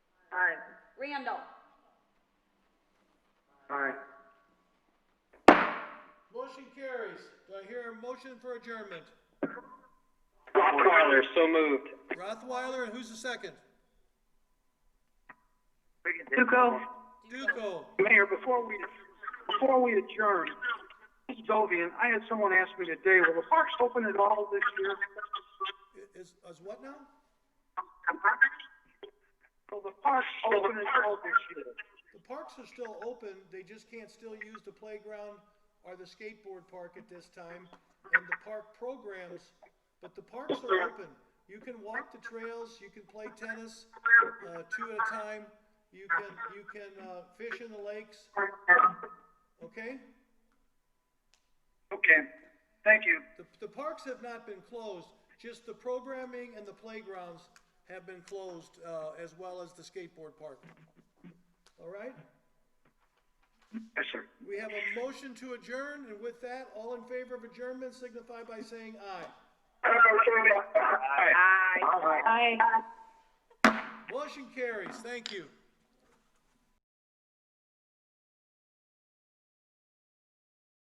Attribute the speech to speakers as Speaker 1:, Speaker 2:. Speaker 1: Randall.
Speaker 2: Aye.
Speaker 3: Motion carries. Do I hear a motion for adjournment?
Speaker 2: Rothweiler, so moved.
Speaker 3: Rothweiler, and who's the second?
Speaker 4: Duco?
Speaker 3: Duco.
Speaker 4: Mayor, before we, before we adjourn, Ms. Dovian, I had someone ask me today, will the parks open at all this year?
Speaker 3: I- Is, is what now?
Speaker 4: Will the parks open at all this year?
Speaker 3: The parks are still open, they just can't still use the playground or the skateboard park at this time, and the park programs, but the parks are open. You can walk the trails, you can play tennis, uh, two at a time, you can, you can, uh, fish in the lakes, okay?
Speaker 4: Okay, thank you.
Speaker 3: The, the parks have not been closed, just the programming and the playgrounds have been closed, uh, as well as the skateboard park. All right?
Speaker 4: Yes, sir.
Speaker 3: We have a motion to adjourn, and with that, all in favor of adjournment signify by saying aye.
Speaker 4: Aye.
Speaker 3: Motion carries, thank you.